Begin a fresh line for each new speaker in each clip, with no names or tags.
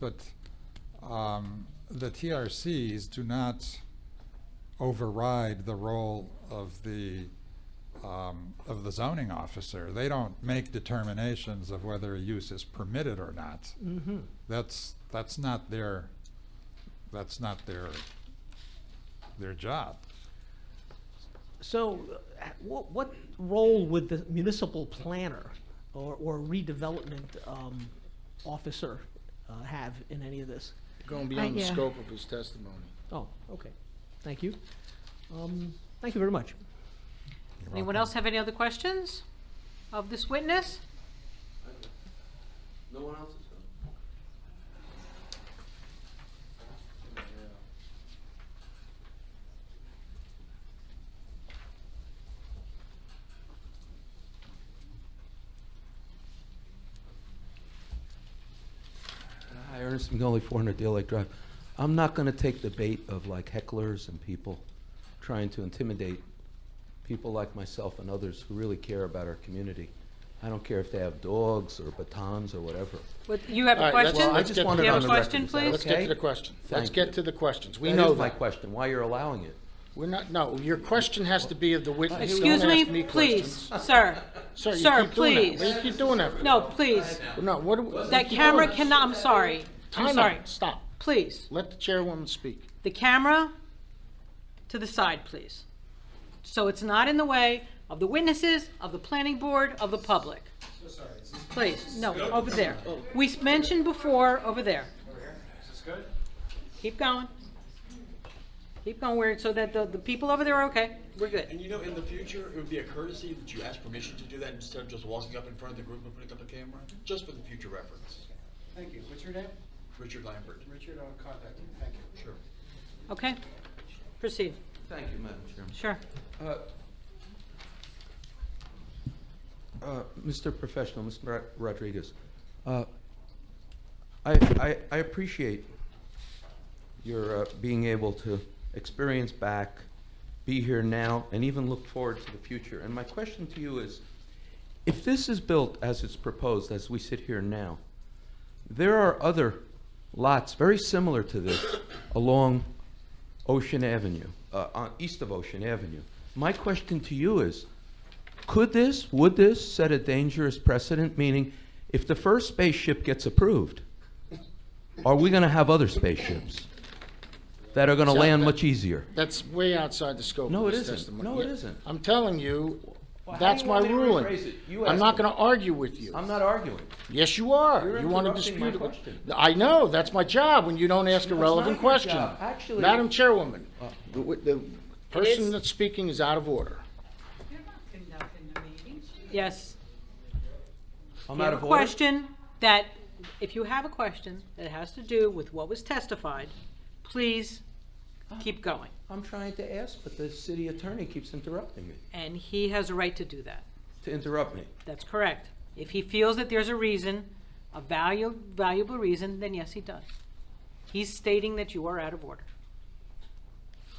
but um, the TRCs do not override the role of the, um, of the zoning officer. They don't make determinations of whether a use is permitted or not. That's, that's not their, that's not their, their job.
So, uh, what, what role would the municipal planner or, or redevelopment um, officer uh, have in any of this?
Going beyond the
yeah.
scope of his testimony.
Oh, okay, thank you. Um, Thank you very much.
Anyone else have any other questions of this witness?
No one else is coming.
Hi, Ernest McNolly, 400 Deal Lake Drive. I'm not going to take the bait of like hecklers and people trying to intimidate people like myself and others who really care about our community. I don't care if they have dogs or batons or whatever.
What- You have
All
a
right, let's-
question?
let's get
Do
to
you
the-
have a
on the record.
question,
Is that
please?
Let's get
okay?
to the question. Let's
Thank
get
you.
to the questions. We
That
know
is my
that.
question, why you're allowing it.
We're not, no, your question has to be of the witness. Don't
Excuse
ask
me, please,
questions.
sir.
Sir, you
Sir,
keep doing that.
please.
Why you keep doing that?
No, please.
No, what? do we- you
That
keep
camera
doing that.
cannot, I'm sorry. I'm
Time
sorry.
out, stop.
Please,
Let the chairwoman speak.
the camera to the side, please. So it's not in the way of the witnesses, of the planning board, of the public. Please, no, over there.
Oh.
We s- mentioned before, over there. Keep going. Keep going where, so that the, the people over there are okay. We're good.
And you know, in the future, it would be a courtesy that you ask permission to do that instead of just walking up in front of the group and putting up a camera, just for the future reference.
Thank you. What's your name?
Richard Lambert.
Richard, I'll contact you. Thank you.
Sure.
Okay? Proceed.
Thank you, Madam Chairman.
Sure.
Uh, uh, Mr. Professional, Mr. Rod- Rodriguez, uh, I I- I appreciate your uh, being able to experience back, be here now, and even look forward to the future. And my question to you is, if this is built as it's proposed, as we sit here now, there are other lots very similar to this along Ocean Avenue, uh, on, east of Ocean Avenue. My question to you is, could this, would this set a dangerous precedent, meaning if the first spaceship gets approved, are we gonna have other spaceships that are gonna
So
land
that-
much easier?
That's way outside the scope
No,
of
it
his
isn't.
testimony.
No, it
Yeah.
isn't.
I'm telling you,
Well, how
that's
do you want
my
me to
ruling.
rephrase it? You
I'm
ask
not
me.
going to argue with you.
I'm not arguing.
Yes, you are.
You're
you want to
interrupting my
dispute it. with-
question.
I know. That's my job when you don't ask a
That's
relevant
not your
question.
job. Actually- Oh.
Madam Chairwoman, the, wi- the person that's speaking is out of order.
Yes.
I'm
You
out
have a
of order.
question that, if you have a question that has to do with what was testified, please keep going.
I'm trying to ask, but the city attorney keeps interrupting me,
And he has a right to do that.
to interrupt me.
That's correct. If he feels that there's a reason, a valuable, valuable reason, then yes, he does. He's stating that you are out of order.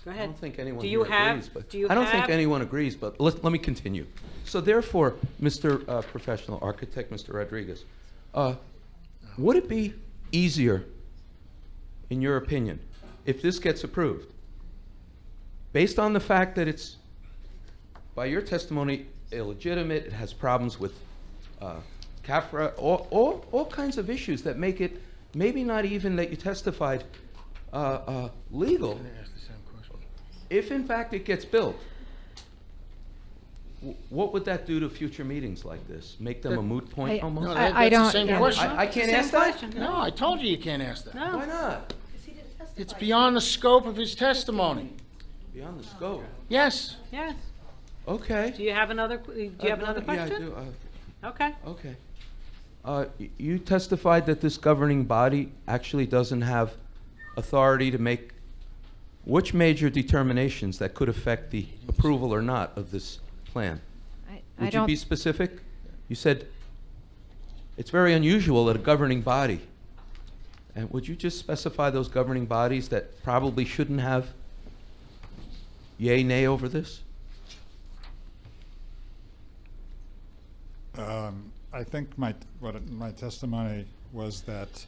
Go ahead.
I don't think anyone
Do you
here agrees,
have-
but.
do you
I don't think
have-
anyone agrees, but let, let me continue. So therefore, Mr. uh, Professional Architect, Mr. Rodriguez, uh, would it be easier, in your opinion, if this gets approved? Based on the fact that it's, by your testimony, illegitimate, it has problems with uh, CAFRA, all, all, all kinds of issues that make it, maybe not even that you testified, uh, uh, legal, if in fact it gets built, wh- what would that do to future meetings like this? Make them a moot
I-
point
No,
almost?
I-
that- that's the
I don't-
same
yeah.
question.
I, I can't
Same
ask that?
question.
No, I told you you can't ask that.
Why
No,
not?
It's beyond the scope of his testimony.
Beyond the scope.
Yes.
yes.
Okay.
Do you have another, qu- do you have another question?
Yeah, I do. uh,
Okay.
Okay. Uh, y- You testified that this governing body actually doesn't have authority to make which major determinations that could affect the approval or not of this plan?
I- I
Would you
don't,
be specific? You said it's very unusual at a governing body. And would you just specify those governing bodies that probably shouldn't have yay, nay over this?
Um, I think my, what, my testimony was that